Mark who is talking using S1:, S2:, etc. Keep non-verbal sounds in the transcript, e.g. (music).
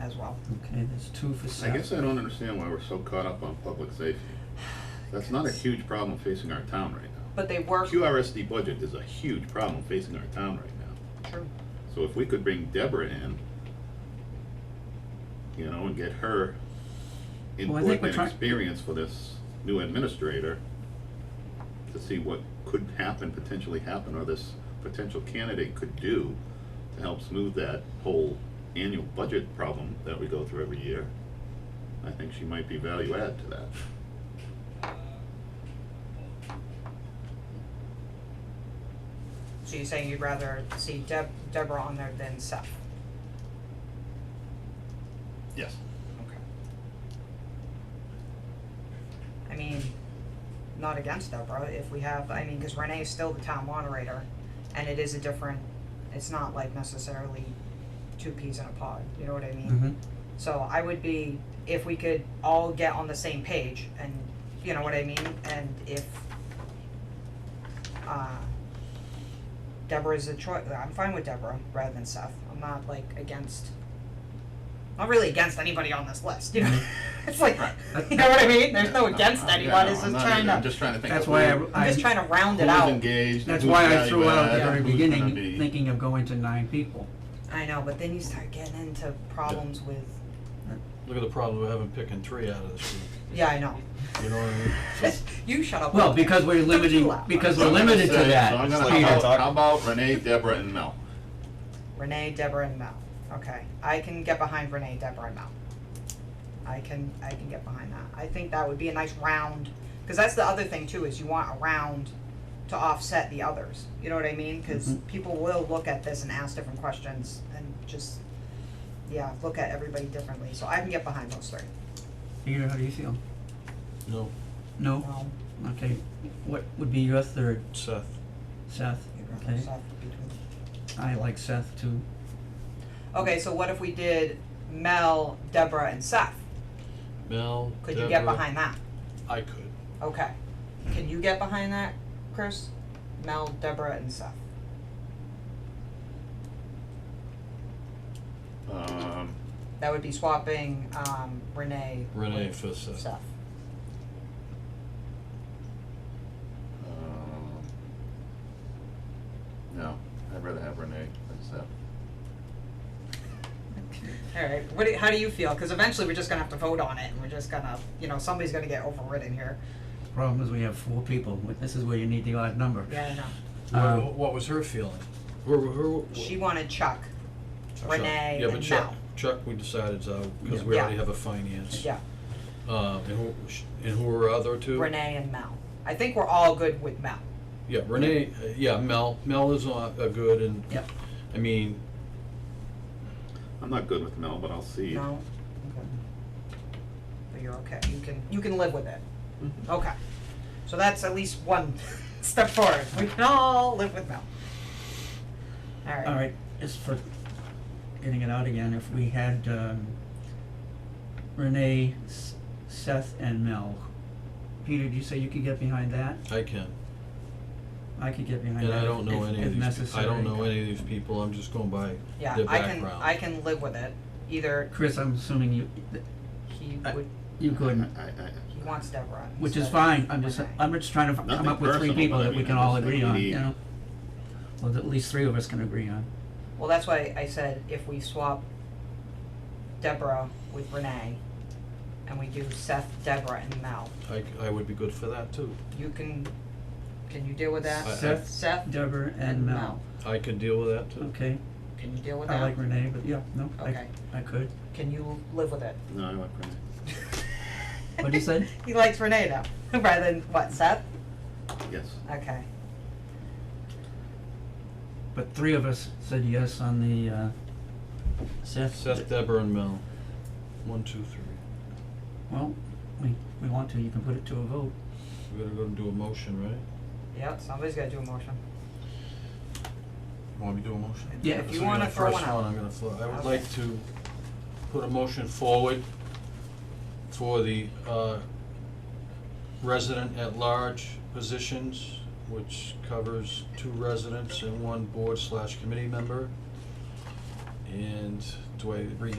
S1: as well.
S2: Okay, that's two for
S3: I
S2: Seth.
S3: guess I don't understand why we're so caught up on public safety. That's not a huge problem facing our town right now.
S1: But they work.
S3: QRSD budget is a huge problem facing our town right now.
S1: True.
S3: So if we could bring Deborah in, you know, and get her
S2: Well, I think
S3: input
S2: we're
S3: and
S2: try-
S3: experience for this new administrator to see what could happen, potentially happen, or this potential candidate could do to help smooth that whole annual budget problem that we go through every year. I think she might be value add to that.
S1: So you're saying you'd rather see Deb, Deborah on there than Seth?
S3: Yes.
S1: Okay. I mean, not against Deborah, if we have, I mean, cause Renee is still the town moderator, and it is a different, it's not like necessarily two peas in a pod, you know what I mean?
S2: Mhm.
S1: So I would be, if we could all get on the same page and, you know what I mean, and if, uh, Deborah's a choice, I'm fine with Deborah rather than Seth, I'm not like against, not really against anybody on this list, you know? (laughs) It's like, you know what I mean, there's no against anyone, it's just trying
S3: I'm
S1: to,
S3: just trying to think
S2: That's
S3: of
S2: why I,
S3: who-
S1: I'm just
S2: I,
S1: trying to round it
S3: who's
S1: out.
S3: engaged,
S2: that's
S3: who's
S2: why I threw out at the
S3: value-add,
S2: very
S3: who's gonna
S2: beginning,
S3: be-
S2: thinking of going to nine people.
S1: I know, but then you start getting into problems with,
S4: Look at the problem we're having picking three out of this group,
S1: yeah, I know,
S4: you know what I mean?
S1: (laughs) you shut up.
S2: Well, because we're
S1: Don't you
S2: limiting,
S1: laugh.
S2: because
S3: So
S2: we're
S3: I'm gonna
S2: limited to
S3: say-
S2: that,
S3: So I'm
S2: Peter.
S3: gonna, how about, how about Renee, Deborah, and Mel?
S1: Renee, Deborah, and Mel. Okay, I can get behind Renee, Deborah, and Mel. I can, I can get behind that. I think that would be a nice round, because that's the other thing too, is you want a round to offset the others. You know what I mean? Because
S2: Mhm.
S1: people will look at this and ask different questions and just, yeah, look at everybody differently. So I can get behind those three.
S2: Peter, how do you feel?
S4: No,
S2: No?
S1: No,
S2: Okay, what would be your third,
S4: Seth,
S2: Seth?
S1: you'd rather
S2: Okay,
S1: Seth between-
S2: I like Seth too.
S1: Okay, so what if we did Mel, Deborah, and Seth?
S4: Mel,
S1: Could you get
S4: Deborah,
S1: behind that?
S4: I could.
S1: Okay. Can you get behind that, Chris? Mel, Deborah, and Seth.
S3: Um,
S1: That would be swapping um, Renee.
S4: Renee
S1: with
S4: for Seth.
S1: Seth.
S3: um, No, I'd rather have Renee than Seth.
S1: All right. What? Do, how do you feel? Because eventually we're just gonna have to vote on it, and we're just gonna, you know, somebody's gonna get overridden here.
S2: Problem is we have four people, this is where you need the odd number.
S1: Yeah, I know.
S2: Um,
S4: What, what was her feeling? Where, where, where?
S1: She wanted Chuck,
S4: Chuck.
S1: Renee,
S4: Yeah, but
S1: and
S4: Chuck,
S1: Mel.
S4: Chuck, we decided, uh,
S2: Yeah.
S4: because we already
S1: Yeah.
S4: have a finance.
S1: Yeah,
S4: Um, and who, and who were other two?
S1: Renee and Mel. I think we're all good with Mel.
S4: Yeah, Renee, uh, yeah, Mel, Mel is on, uh, good and.
S2: Yep.
S4: I mean,
S3: I'm not good with Mel, but I'll see.
S1: No. Okay. But you're okay. You can you can live with it.
S3: Mhm.
S2: Mm-hmm.
S1: Okay. So that's at least one (laughs) step forward. We can all live with Mel. All right.
S2: All right, just for getting it out again, if we had um, Renee, S- Seth, and Mel, Peter, did you say you could get behind that?
S4: I can,
S2: I could get behind
S4: and I
S2: that
S4: don't
S2: if,
S4: know
S2: if,
S4: any
S2: if
S4: of these, pe- I
S2: necessary.
S4: don't know any of these people, I'm just going by
S1: Yeah,
S4: their background.
S1: I can I can live with it. Either
S2: Chris, I'm assuming you, th-
S1: he
S2: I-
S1: would
S2: you couldn't,
S3: I, I,
S1: he wants Deborah.
S2: which is
S1: instead.
S2: fine, I'm just,
S1: Okay.
S2: I'm just trying to f- come
S3: Nothing
S2: up with three
S3: personal,
S2: people
S3: but I
S2: that we
S3: mean,
S2: can
S3: I
S2: all
S3: just think
S2: agree
S3: we
S2: on,
S3: need-
S2: you know? Well, at least three of us can agree on.
S1: Well, that's why I said if we swap Deborah with Renee, and we do Seth, Deborah, and Mel,
S4: I, c- I would be good for that too,
S1: you can can you deal with that?
S4: I- I-
S2: Seth,
S1: Seth
S2: Deborah, and Mel,
S4: I could deal with that too.
S2: okay,
S1: Can you deal with
S2: I
S1: that?
S2: like Renee, but yeah, no, I,
S1: Okay.
S2: I could,
S1: Can you live with it?
S3: no, I like Renee.
S2: What'd you say?
S1: (laughs) he likes Renee now, (laughs) rather than what Seth.
S3: Yes.
S1: Okay.
S2: but three of us said yes on the, uh, Seth.
S4: Seth, uh, Deborah, and Mel. One, two, three.
S2: Well, we, we want to, you can put it to a vote.
S4: We gotta go and do a motion, right?
S1: Yep. Somebody's got to do a motion.
S4: You Want me to do a motion?
S2: Yeah.
S1: If
S4: This
S1: you
S4: will be
S1: want to
S4: my
S1: throw one
S4: First one
S1: out.
S4: I'm gonna throw, I would
S1: Okay.
S4: like to put a motion forward for the, uh, resident at large positions, which covers two residents and one board slash committee member. And do I read the